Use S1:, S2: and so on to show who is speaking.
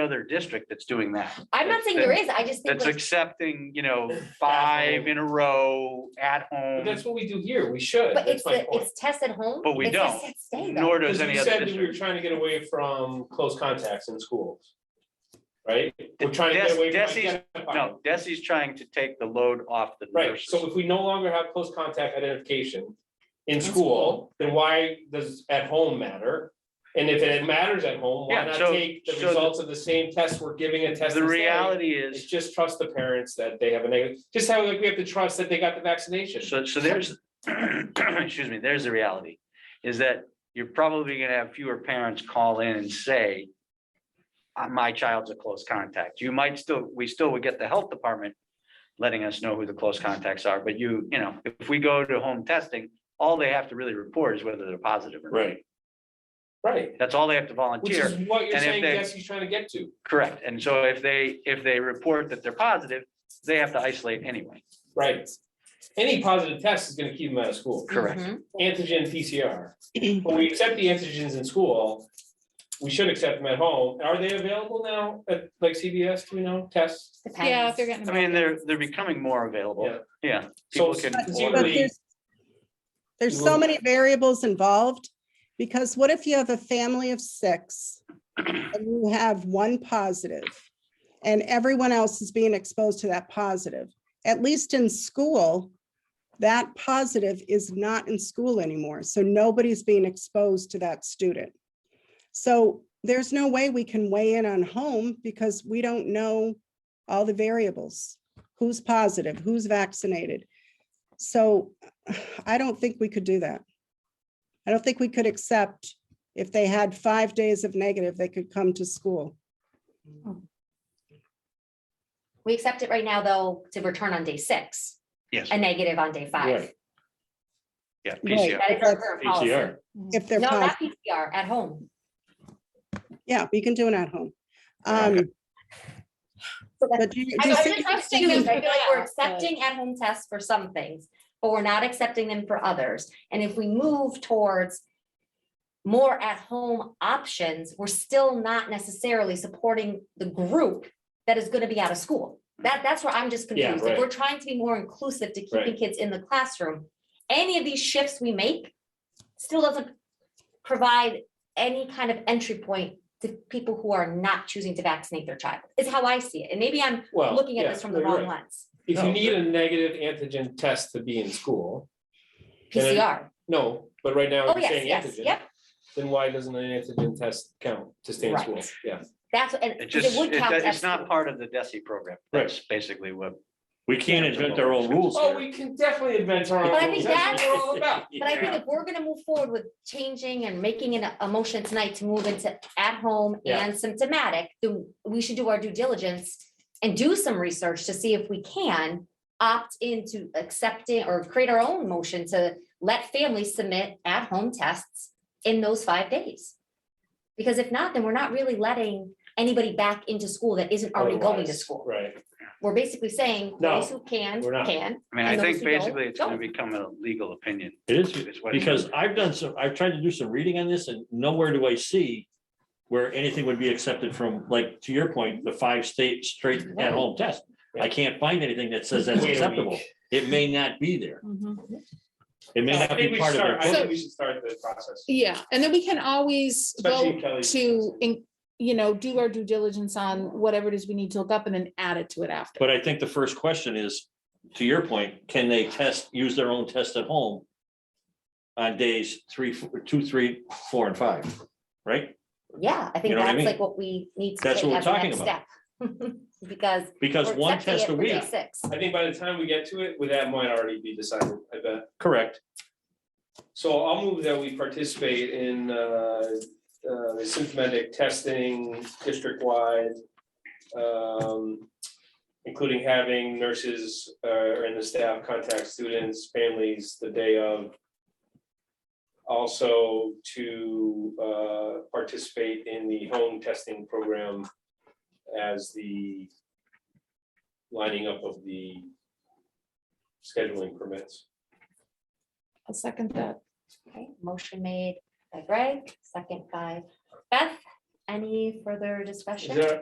S1: other district that's doing that.
S2: I'm not saying there is, I just think,
S1: That's
S2: like,
S1: accepting, you know, five in a row at
S3: But
S1: home,
S3: That's what we do here, we should,
S2: but it's,
S3: that's my
S2: the
S3: point.
S2: it's test at home.
S1: But we
S2: it's a
S1: don't.
S2: set stay, though.
S1: nor
S3: Because
S1: does
S3: we
S1: any other
S3: said that we were
S1: district.
S3: trying to get away from close contacts in schools. Right? We're
S1: Des-
S3: trying to get away from
S1: Desi's-
S3: identifying.
S1: No, Desi's trying to take the load off the
S3: Right,
S1: nurses.
S3: so if we no longer have close contact identification in
S2: In
S3: school, then why does at home matter? And if it matters at home, why
S1: Yeah,
S3: not
S1: so-
S3: take the
S1: so the-
S3: results of the same test we're giving a test?
S1: The
S3: and say,
S1: reality
S3: It's
S1: is,
S3: just trust the parents that they have a negative, just how like we have to trust that they got the vaccination.
S1: so, so there's, excuse me, there's the reality, is that you're probably gonna have fewer parents call in and say, "Uh, my child's a close contact. You might still, we still would get the health department letting us know who the close contacts are, but you, you know, if we go to home testing, all they have to really report is whether they're positive or not.
S3: Right. Right,
S1: That's all they have to
S3: which
S1: volunteer.
S3: is what you're
S1: And if
S3: saying,
S1: they-
S3: yes, he's trying to get to.
S1: Correct. And so if they, if they report that they're positive, they have to isolate anyway.
S3: Right. Any positive test is gonna keep them out of school,
S1: Correct.
S2: Mhm.
S3: antigen PCR. When we accept the antigens in school, we should accept them at home. Are they available now at like CBS, do we know, tests?
S4: Yeah,
S2: Depends.
S4: if they're getting.
S1: I mean, they're, they're becoming more available.
S3: Yeah.
S1: Yeah.
S3: So
S1: People can
S3: conceivably-
S1: order.
S5: But there's, there's
S3: You
S5: so
S3: will-
S5: many variables involved, because what if you have a family of six? And you have one positive, and everyone else is being exposed to that positive. At least in school, that positive is not in school anymore, so nobody's being exposed to that student. So there's no way we can weigh in on home because we don't know all the variables. Who's positive, who's vaccinated? So I don't think we could do that. I don't think we could accept if they had five days of negative, they could come to school.
S2: We accept it right now, though, to return on day six,
S1: Yes.
S2: a negative on day five.
S3: Right.
S1: Yeah.
S5: Right.
S1: PCR.
S2: That is our current policy.
S5: If they're,
S2: No,
S5: positive,
S2: not PCR, at home.
S5: yeah, we can do it at home.
S1: Yeah,
S5: Um,
S2: So that's-
S5: But do you, do
S2: I'm
S5: you
S2: I'm
S5: see,
S2: just asking you, I feel like we're accepting at-home tests for some things, but we're not accepting them for others. And if we move towards more at-home options, we're still not necessarily supporting the group that is gonna be out of school. That, that's where I'm just
S3: Yeah,
S2: confused. If
S3: right.
S2: we're trying to be more inclusive to keeping
S3: Right.
S2: kids in the classroom, any of these shifts we make still doesn't provide any kind of entry point to people who are not choosing to vaccinate their child, is how I see it. And maybe I'm
S3: Well,
S2: looking at
S3: Oh, yeah,
S2: this from the
S3: you're
S2: wrong
S3: right.
S2: lens.
S3: If
S1: No.
S3: you need a negative antigen test to be in school, Then it-
S2: PCR.
S3: no, but right now
S2: Oh,
S3: you're
S2: yes,
S3: saying
S2: yes,
S3: antigen.
S2: yep.
S3: Then why doesn't an antigen test count to stay in
S2: Right.
S3: school? Yeah,
S2: That's, and
S1: It
S2: 'cause
S1: just,
S2: it would
S1: it-
S2: count as.
S1: it's not part of the DESI program.
S3: Right.
S1: That's basically what.
S6: We can't invent our own rules
S3: oh,
S6: here.
S3: we can definitely invent our own.
S2: But I
S3: rules.
S2: think
S3: That's what we're all about.
S2: But I think if we're gonna move forward with changing and making an, a motion tonight to move into at-home
S3: Yeah.
S2: and symptomatic, then we should do our due diligence and do some research to see if we can opt into accepting or create our own motion to let families submit at-home tests in those five days. Because if not, then we're not really letting anybody back into school that isn't already going to
S3: Otherwise,
S2: school.
S3: Right.
S2: we're basically saying,
S3: No,
S2: those who can,
S3: we're not.
S2: can.
S1: I mean, I
S2: And those
S1: think
S2: who don't,
S1: basically it's going to
S2: don't.
S1: become a legal opinion.
S6: It is,
S1: is what it
S6: because I've done some, I've tried to do some reading on this and nowhere do I see where anything would be accepted from, like, to your point, the five state straight at home test. I can't find anything that says that's
S3: Wait a
S6: acceptable.
S3: week.
S6: It may not be there. It may
S3: I
S6: not
S3: think
S6: be
S3: we should
S6: part of
S3: start,
S6: their.
S3: I
S6: program.
S3: think we should start the process.
S4: Yeah, and then we can always
S3: Especially
S4: vote
S3: Kelly's
S4: to,
S3: process.
S4: in- you know, do our due diligence on whatever it is we need to look up and then add it to it after.
S6: But I think the first question is, to your point, can they test, use their own test at home? On days three, four- two, three, four, and five, right?
S2: Yeah, I think
S6: You know what I
S2: that's
S6: mean?
S2: like what we need to
S6: That's
S2: take
S6: what we're
S2: as a next
S6: talking
S2: step. Because.
S6: Because
S2: we're
S6: one
S2: accepting it
S6: test a
S2: for day
S6: week,
S2: Six.
S3: I think by the time we get to it, with that might already be decided, I bet.
S6: correct,
S3: So I'll move that we participate in uh, uh, the symptomatic testing district-wide. um, Including having nurses uh, and the staff contact students, families the day of. Also to uh, participate in the home testing program as the lining up of the scheduling permits.
S4: I'll second that.
S2: Okay, motion made by Greg, second by Beth. Any further
S3: Is
S2: discussion?
S3: there-